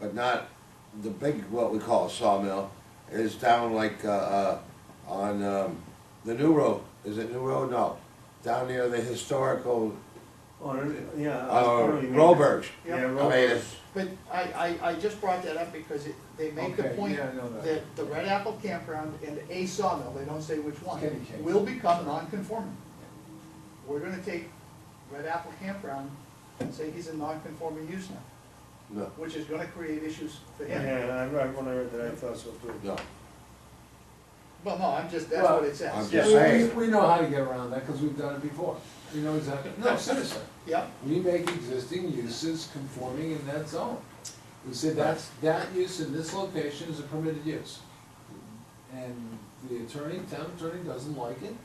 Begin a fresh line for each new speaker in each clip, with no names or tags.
but not the big, what we call a sawmill, is down like, uh, uh, on, um, the new road, is it new road? No, down near the historical,
Or, yeah. Oh, I
uh,
totally mean-
Roberts.
Yeah,
I
Roberts.
mean, it's,
But I, I, I just brought that up because it, they make the
Okay,
point
yeah, I know that.
that the Red Apple Campground and a sawmill, they don't say which one,
Skinny case.
will become non-conforming. We're gonna take Red Apple Campground and say he's a non-conforming use now,
no,
which is gonna create issues for him.
Yeah, I, I when I read that, I thought so too.
no,
Well, no, I'm just, that's what
Well,
it says.
I'm
Yeah,
just
we-
saying.
We, we know how to get around that, because we've done it before. We know exactly, no, citizen,
Yep,
we make existing uses conforming in that zone. We say that's, that use in this location is a permitted use. And the attorney, town attorney doesn't like it,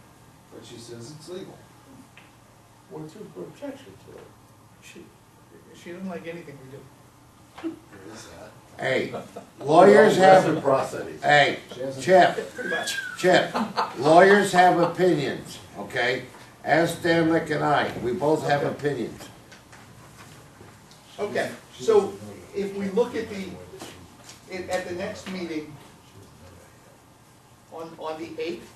but she says it's legal.
What's your objection to it?
she, she doesn't like anything we do.
There is that.
Hey, lawyers have,
Reciprocity.
hey,
She hasn't-
Chip,
Pretty much.
Chip, lawyers have opinions, okay? Ask Dan Lick and I, we both have opinions.
Okay, so if we look at the, at, at the next meeting on, on the eighth,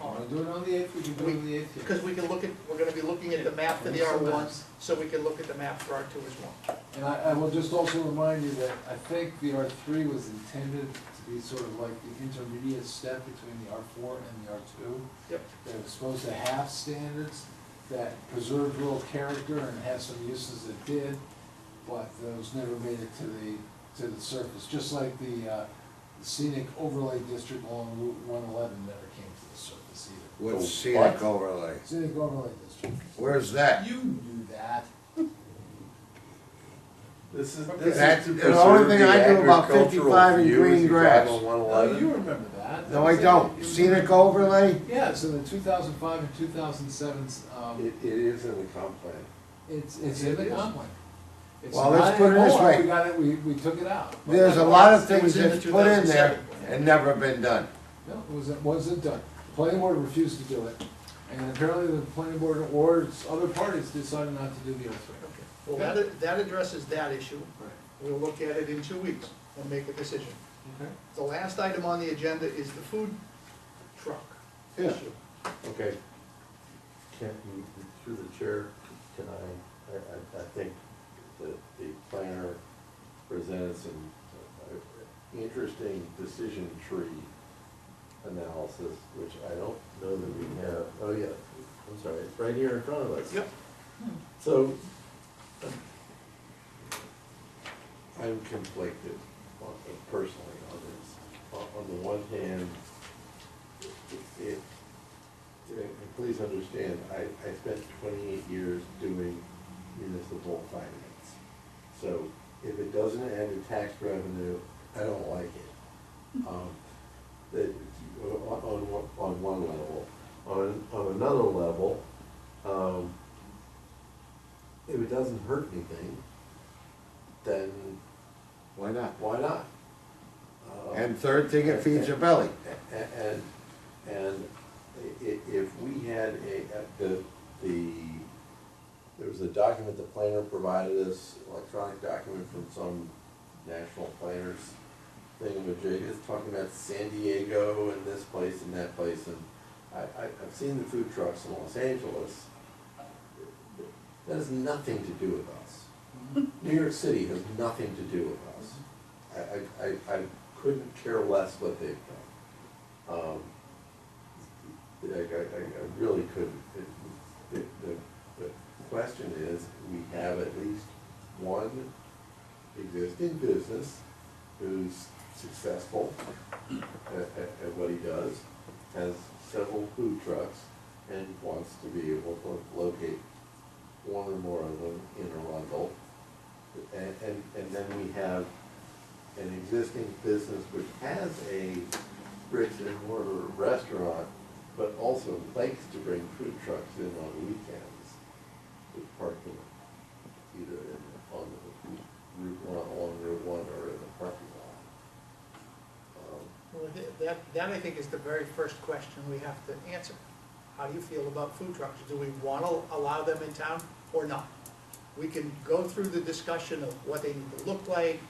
Wanna Oh, do it on the eighth, we can do it on the eighth here.
Because we can look at, we're gonna be looking at the map for the R ones, so we can look at the map for R two as well.
And I, I will just also remind you that I think the R three was intended to be sort of like the intermediate step between the R four and the R two.
Yep.
That was supposed to have standards that preserved rural character and had some uses that did, but those never made it to the, to the surface, just like the uh, scenic overlay district along Route one eleven never came to the surface either.
What's scenic overlay?
Scenic overlay district,
Where's that?
you knew that.
This is,
Okay.
this
That-
is to
the
preserve
only
the
thing I do about
agricultural
55 in
view as
green
you drive
grass.
on one
Oh, you
eleven.
remember that.
No, I don't. Scenic overlay?
Yeah, so the two thousand five and two thousand seven, um,
It, it is in the comp plan.
it's, it's in the
It is.
comp plan. It's
Well, let's
not
put it this
anymore.
way.
We got it, we, we took it out.
There's a lot of
It
things
was in the
that's put in there
2007 plan.
and never been done.
No, it wasn't, wasn't done. The Planning board refused to do it, and apparently the planning board or its other parties decided not to do the earthquake.
Okay. Well, that, that addresses that issue,
Right.
we'll look at it in two weeks and make a decision.
Okay.
The last item on the agenda is the food truck
Yeah.
issue.
Okay. Can, you- through the chair, can I, I, I, I think that the planner presented some uh, interesting decision tree analysis, which I don't know that we have, oh yeah, I'm sorry, it's right here in front of us.
Yep.
So, um, I'm conflicted on- uh, personally on this. On- On the one hand, it- it, and please understand, I, I spent twenty-eight years doing municipal finance. So if it doesn't add to tax revenue, I don't like it. Um, That, on, on, one- on one level. On, on another level, um, if it doesn't hurt anything, then
Why not?
why not? Um,
And third thing, it feeds your belly.
a- And, and i- i- if we had a, the, the, there was a document the planner provided us, electronic document from some national planners thing with Jake, it's talking about San Diego and this place and that place, and I, I, I've seen the food trucks in Los Angeles. That has nothing to do with us. New York City has nothing to do with us. I, I, I, I couldn't care less what they've done. Um, I, I, I I really couldn't. It- The, the, the question is, we have at least one existing business who's successful at, at, at what he does, has several food trucks, and wants to be able to locate one or more of them in Arundel. And, and, and then we have an existing business which has a bricks and mortar restaurant, but also likes to bring food trucks in on weekends with parking either in, the- on the Route One, along Route One, or in the parking lot. Um,
Well, th- that, that I think is the very first question we have to answer. How do you feel about food trucks? Do we want to allow them in town or not? We can go through the discussion of what they need to look like,